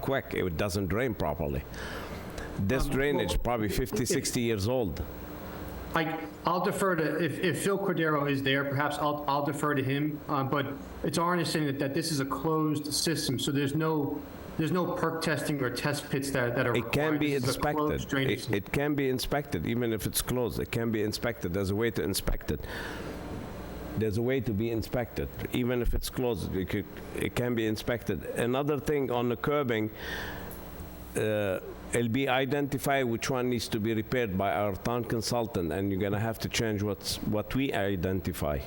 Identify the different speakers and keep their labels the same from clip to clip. Speaker 1: quick. It doesn't drain properly. This drainage, probably 50, 60 years old.
Speaker 2: I, I'll defer to, if, if Phil Cordero is there, perhaps I'll, I'll defer to him, uh, but it's our understanding that, that this is a closed system, so there's no, there's no perk testing or test pits that, that are
Speaker 1: It
Speaker 2: required.
Speaker 1: can be
Speaker 2: This is a closed
Speaker 1: inspected.
Speaker 2: drainage
Speaker 1: It
Speaker 2: system.
Speaker 1: it can be inspected, even if it's closed. It can be inspected. There's a way to inspect it. There's a way to be inspected, even if it's closed. It could, it can be inspected. Another thing on the curbing, uh, it'll be identified which one needs to be repaired by our town consultant, and you're gonna have to change what's, what we identify.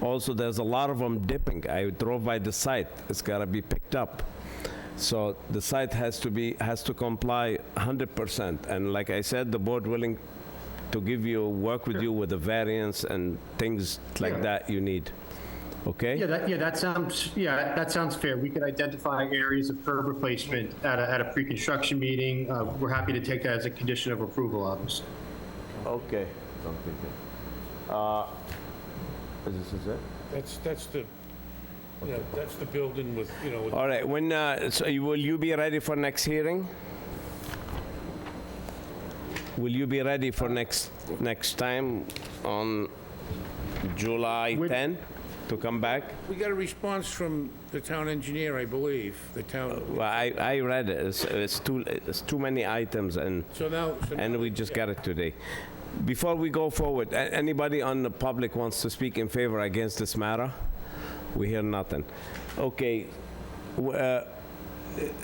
Speaker 1: Also, there's a lot of them dipping. I drove by the site. It's gotta be picked up. So the site has to be, has to comply 100%. And like I said, the board willing to give you, work with you with the variance and things like
Speaker 2: Yeah.
Speaker 1: that you need.
Speaker 2: Yeah,
Speaker 1: Okay?
Speaker 2: that, yeah, that sounds, yeah, that sounds fair. We could identify areas of curb replacement at a, at a pre-construction meeting. Uh, We're happy to take that as a condition of approval, obviously.
Speaker 3: Okay. Don't think it. Uh, This is it?
Speaker 4: That's, that's the, yeah, that's the building with, you know, with
Speaker 1: All right, when, uh, so you- will you be ready for next hearing? Will you be ready for next, next time on July 10 to come back?
Speaker 4: We got a response from the town engineer, I believe, the town,
Speaker 1: Well, I, I read it. It's- It's too, it's too many items and.
Speaker 4: so now, so now-
Speaker 1: And we just got it today. Before we go forward, a- anybody on the public wants to speak in favor against this matter? We hear nothing. Okay, w- uh,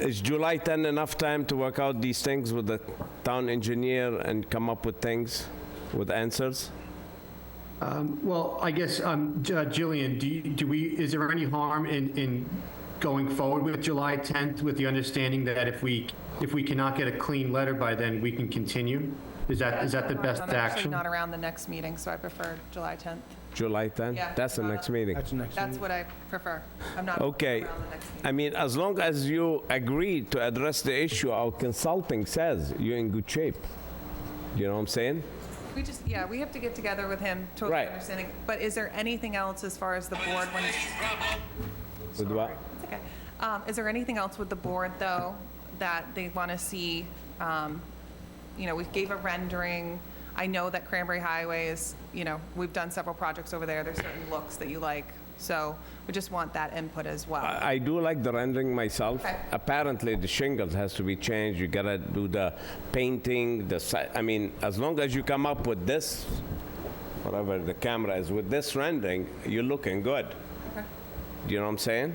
Speaker 1: is July 10 enough time to work out these things with the town engineer and come up with things, with answers?
Speaker 2: Well, I guess, um, J- uh, Jillian, do you, do we, is there any harm in, in going forward with July 10th with the understanding that if we, if we cannot get a clean letter by then, we can continue? Is that, is that the best
Speaker 5: I'm actually
Speaker 2: action?
Speaker 5: not around the next meeting, so I prefer July 10th.
Speaker 1: July 10?
Speaker 5: Yeah.
Speaker 1: That's the next meeting.
Speaker 5: That's what I prefer. I'm not around the
Speaker 1: Okay.
Speaker 5: next meeting.
Speaker 1: I mean, as long as you agree to address the issue, our consulting says you're in good shape. You know what I'm saying?
Speaker 5: We just, yeah, we have to get together with him, totally
Speaker 1: Right.
Speaker 5: understanding. But is there anything else as far as the board when it's
Speaker 1: With what?
Speaker 5: It's okay. Um, Is there anything else with the board, though, that they want to see? Um, You know, we gave a rendering. I know that Cranberry Highway is, you know, we've done several projects over there. There's certain looks that you like. So we just want that input as well.
Speaker 1: I I do like the rendering myself.
Speaker 5: Okay.
Speaker 1: Apparently, the shingles has to be changed. You gotta do the painting, the si I mean, as long as you come up with this, whatever the camera is, with this rendering, you're looking good. Do you know what I'm saying?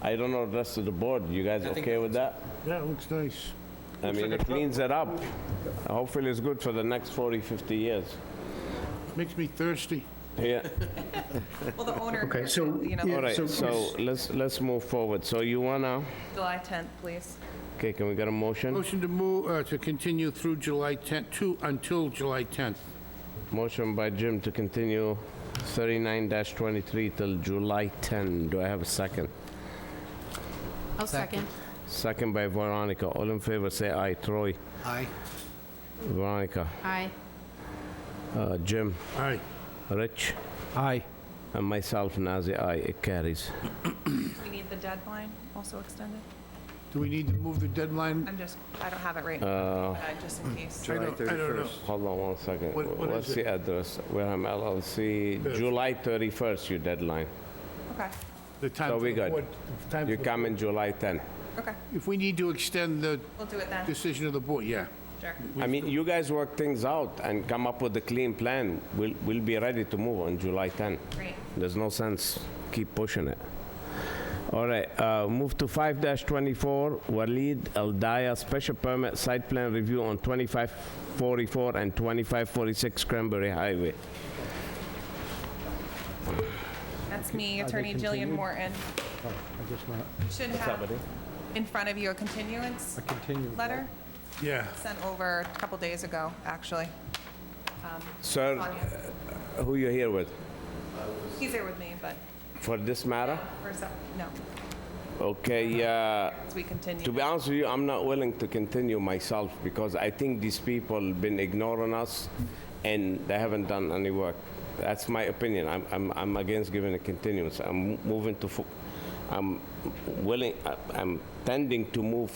Speaker 1: I don't know the rest of the board. You guys okay with that?
Speaker 4: Yeah, it looks nice.
Speaker 1: I mean, it cleans it up. Hopefully, it's good for the next 40, 50 years.
Speaker 4: Makes me thirsty.
Speaker 1: Yeah.
Speaker 5: Well, the owner,
Speaker 2: Okay, so-
Speaker 5: you
Speaker 2: yeah.
Speaker 1: All
Speaker 5: know,
Speaker 1: right,
Speaker 2: So-
Speaker 1: so let's, let's move forward. So you wanna,
Speaker 5: July 10th, please.
Speaker 1: okay, can we get a motion?
Speaker 4: Motion to move, uh, to continue through July 10th, to, until July 10th.
Speaker 1: Motion by Jim to continue 39-23 till July 10. Do I have a second?
Speaker 6: I'll second.
Speaker 1: Second by Veronica. All in favor, say aye. Troy?
Speaker 7: Aye.
Speaker 1: Veronica?
Speaker 6: Aye.
Speaker 1: Uh, Jim?
Speaker 4: Aye.
Speaker 1: Rich?
Speaker 7: Aye.
Speaker 1: And myself, Nazir, aye. It carries.
Speaker 5: We need the deadline also extended.
Speaker 4: Do we need to move the deadline?
Speaker 5: I'm just, I don't have it right now, but I- just in case.
Speaker 4: I don't- I don't know.
Speaker 1: Hold on one second.
Speaker 4: What- what
Speaker 1: What's
Speaker 4: is it?
Speaker 1: the address? Wareham LLC, July 31st, your deadline.
Speaker 5: Okay,
Speaker 4: The time
Speaker 1: So
Speaker 4: for
Speaker 1: we
Speaker 4: the
Speaker 1: good.
Speaker 4: board- the time
Speaker 1: You
Speaker 4: for the-
Speaker 1: come in July 10.
Speaker 5: okay.
Speaker 4: If we need to extend the
Speaker 5: We'll do it then,
Speaker 4: decision of the board, yeah.
Speaker 5: sure.
Speaker 1: I mean, you guys work things out and come up with a clean plan. We'll, we'll be ready to move on July 10.
Speaker 5: Great.
Speaker 1: There's no sense keep pushing it. All right, uh, move to 5-24, Walid Al Daya, special permit site plan review on 2544 and 2546 Cranberry Highway.
Speaker 5: That's me, Attorney Jillian Morton. Should have in front of you a continuance letter
Speaker 4: Yeah.
Speaker 5: sent over a couple days ago, actually.
Speaker 1: Sir, uh, who you here with?
Speaker 5: He's here with me, but
Speaker 1: For this matter?
Speaker 5: for some, no,
Speaker 1: Okay, uh,
Speaker 5: as we continue.
Speaker 1: To be honest with you, I'm not willing to continue myself because I think these people been ignoring us and they haven't done any work. That's my opinion. I'm, I'm, I'm against giving a continuance. I'm moving to, fo- I'm willing, I- I'm tending to move